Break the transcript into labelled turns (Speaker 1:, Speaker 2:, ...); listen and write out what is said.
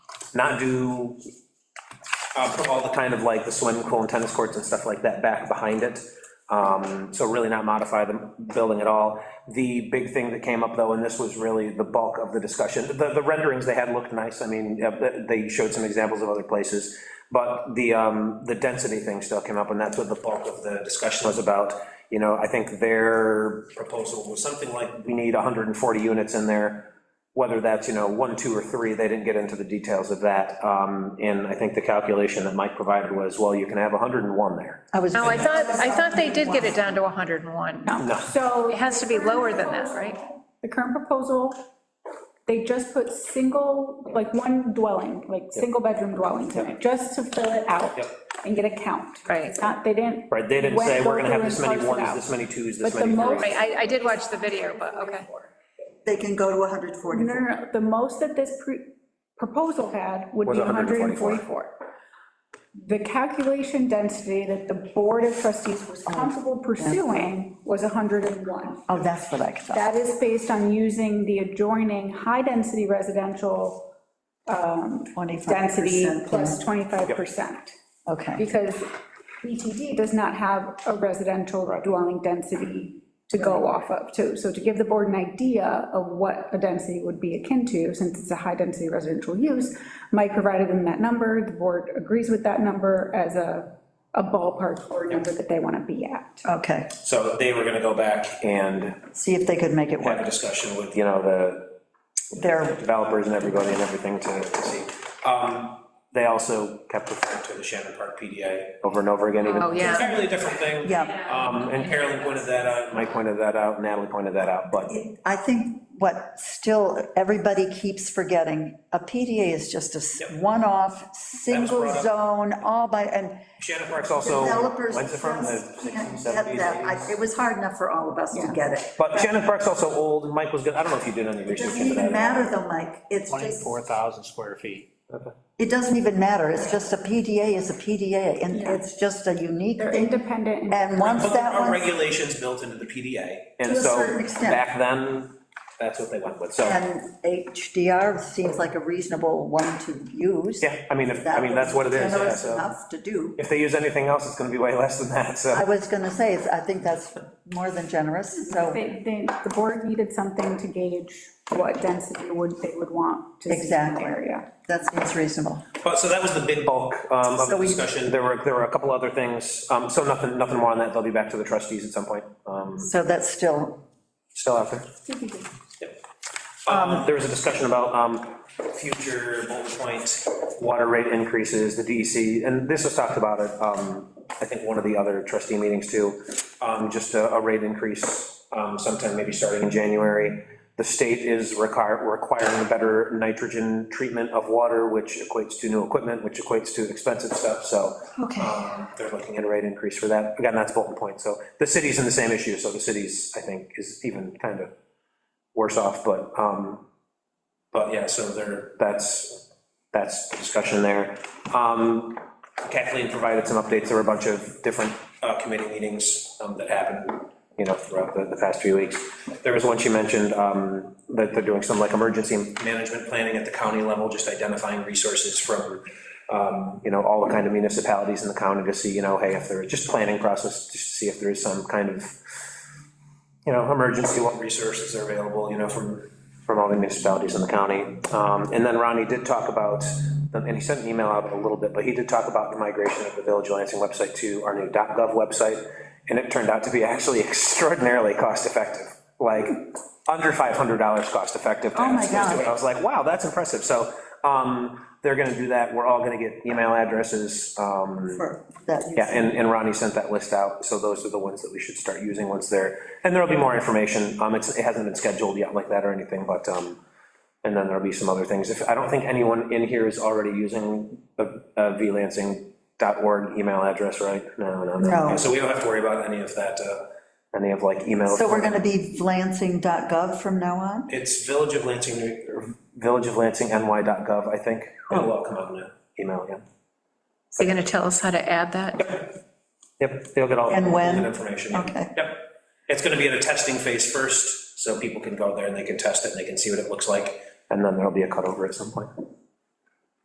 Speaker 1: not do, uh, put all the kind of like the swimming pool and tennis courts and stuff like that back behind it. Um, So really not modify the building at all. The big thing that came up, though, and this was really the bulk of the discussion, the, the renderings they had looked nice, I mean, uh, they showed some examples of other places, but the, um, the density thing still came up, and that's what the bulk of the discussion was about. You know, I think their proposal was something like, we need 140 units in there, whether that's, you know, one, two, or three, they didn't get into the details of that. Um, And I think the calculation that Mike provided was, well, you can have 101 there.
Speaker 2: I was.
Speaker 3: No, I thought, I thought they did get it down to 101.
Speaker 4: So.
Speaker 3: It has to be lower than that, right?
Speaker 4: The current proposal, they just put single, like one dwelling, like single-bedroom dwellings in it, just to fill it out
Speaker 1: Yep.
Speaker 4: and get a count.
Speaker 3: Right.
Speaker 4: It's not, they didn't.
Speaker 1: Right, they didn't say,
Speaker 4: went-
Speaker 1: we're gonna have
Speaker 4: go
Speaker 1: this
Speaker 4: through
Speaker 1: many
Speaker 4: and parse it
Speaker 1: ones,
Speaker 4: out.
Speaker 1: this many twos, this
Speaker 4: But the
Speaker 1: many
Speaker 4: most-
Speaker 1: threes.
Speaker 3: Right, I, I did watch the video, but, okay.
Speaker 2: They can go to 140.
Speaker 4: No, no, no, the most that this pre- proposal had would
Speaker 1: Was
Speaker 4: be
Speaker 1: 144.
Speaker 4: 144. The calculation density that the Board of Trustees was comfortable pursuing was 101.
Speaker 2: Oh, that's what I thought.
Speaker 4: That is based on using the adjoining high-density residential density
Speaker 2: 25%
Speaker 4: plus 25%.
Speaker 2: Okay,
Speaker 4: Because BTD does not have a residential dwelling density to go off of, too. So to give the board an idea of what a density would be akin to, since it's a high-density residential use, Mike provided them that number, the board agrees with that number as a, a ballpark or number that they want to be at.
Speaker 2: okay.
Speaker 1: So they were gonna go back and
Speaker 2: See if they could make it
Speaker 1: have a
Speaker 2: work.
Speaker 1: discussion with, you know, the
Speaker 2: They're,
Speaker 1: developers and everybody and everything to to see. Um, They also kept referring to the Shannon Park PDA over and over again, even.
Speaker 3: Oh, yeah.
Speaker 1: Entirely different thing.
Speaker 2: yeah.
Speaker 1: Um, And Carolyn pointed that out, Mike pointed that out, Natalie pointed that out, but
Speaker 2: I think what still everybody keeps forgetting, a PDA is just a s-
Speaker 1: Yep.
Speaker 2: one-off, single
Speaker 1: brought up.
Speaker 2: zone, all by, and
Speaker 1: Shannon Park's also,
Speaker 5: Developers
Speaker 1: when's it from, the
Speaker 5: just can't
Speaker 1: 60s,
Speaker 5: get
Speaker 1: 70s,
Speaker 5: that.
Speaker 1: 80s?
Speaker 5: I- It was hard enough for all of us to get it.
Speaker 1: But Shannon Park's also old, and Mike was good, I don't know if you did any
Speaker 5: It
Speaker 1: research
Speaker 5: doesn't
Speaker 1: into that.
Speaker 5: even matter though, Mike, it's just,
Speaker 6: 24,000 square feet.
Speaker 2: it doesn't even matter, it's just a PDA is a PDA, and it's just a unique
Speaker 4: They're
Speaker 2: thing.
Speaker 4: independent, and
Speaker 2: And once
Speaker 1: But there
Speaker 2: that
Speaker 1: are
Speaker 2: one's
Speaker 1: regulations built into the PDA, and
Speaker 5: To a
Speaker 1: so,
Speaker 5: certain extent.
Speaker 1: back then, that's what they went with, so,
Speaker 2: And HDR seems like a reasonable one to use.
Speaker 1: yeah, I mean, if, I mean, that's what it is, yeah,
Speaker 5: generous
Speaker 1: so.
Speaker 5: enough to do.
Speaker 1: If they use anything else, it's gonna be way less than that,
Speaker 2: I
Speaker 1: so,
Speaker 2: was going to say, it's- I think that's more than generous, so,
Speaker 4: they, they, the board needed something to gauge what density would, they would want to see in the
Speaker 2: Exactly.
Speaker 4: area.
Speaker 2: that seems reasonable.
Speaker 1: but, so that was the big bulk um, of
Speaker 2: So
Speaker 1: the
Speaker 2: we-
Speaker 1: discussion, there were, there were a couple other things, um, so nothing, nothing more on that, they'll be back to the trustees at some point, um,
Speaker 2: So that's still,
Speaker 1: still out there. Um, There was a discussion about um, future bullet point water rate increases, the DEC, and this was talked about at, um, I think, one of the other trustee meetings too, um, just a a rate increase um, sometime maybe starting in January. The state is require- requiring better nitrogen treatment of water, which equates to new equipment, which equates to expensive stuff, so. um, They're looking at a rate increase for that. Again, that's bullet point, so the city's in the same issue, so the city's, I think, is even kind of worse off, but, um, but yeah, so there, that's, that's discussion there. Um, Kathleen provided some updates, there were a bunch of different uh, committee meetings um, that happened, you know, throughout the, the past few weeks. There was one she mentioned, um, that they're doing some like emergency management planning at the county level, just identifying resources from, um, you know, all the kind of municipalities in the county to see, you know, hey, if there, just planning process, just to see if there is some kind of you know, emergency, what resources are available, you know, from, from all the municipalities in the county. Um, And then Ronnie did talk about, and he sent an email out a little bit, but he did talk about the migration of the Village of Lansing website to our new .gov website, and it turned out to be actually extraordinarily cost-effective, like, under $500 cost-effective. Oh,
Speaker 2: my God.
Speaker 1: I was like, wow, that's impressive. So um, they're going to do that, we're all going to get email addresses. um,
Speaker 2: for that.
Speaker 1: yeah, and, and Ronnie sent that list out, so those are the ones that we should start using once they're, and there'll be more information, um, it's, it hasn't been scheduled yet like that or anything, but, um, and then there'll be some other things, if, I don't think anyone in here is already using a, a vlansing.org email address, right? No, no, no,
Speaker 2: No,
Speaker 6: So we don't have to worry about any of that. uh,
Speaker 1: any of like email.
Speaker 2: so we're going to be lansing.gov from now on?
Speaker 6: It's Village of Lansing, New- or-
Speaker 1: Village of Lansing, NY.gov, I think,
Speaker 6: oh, well, come on now.
Speaker 1: email, yeah,
Speaker 3: So you're going to tell us how to add that?
Speaker 1: yep, they'll get all.
Speaker 2: And
Speaker 6: Good
Speaker 2: when?
Speaker 6: information.
Speaker 2: Okay,
Speaker 6: Yep. It's going to be in a testing phase first, so people can go there and they can test it and they can see what it looks like.
Speaker 1: And then there'll be a cutover at some point.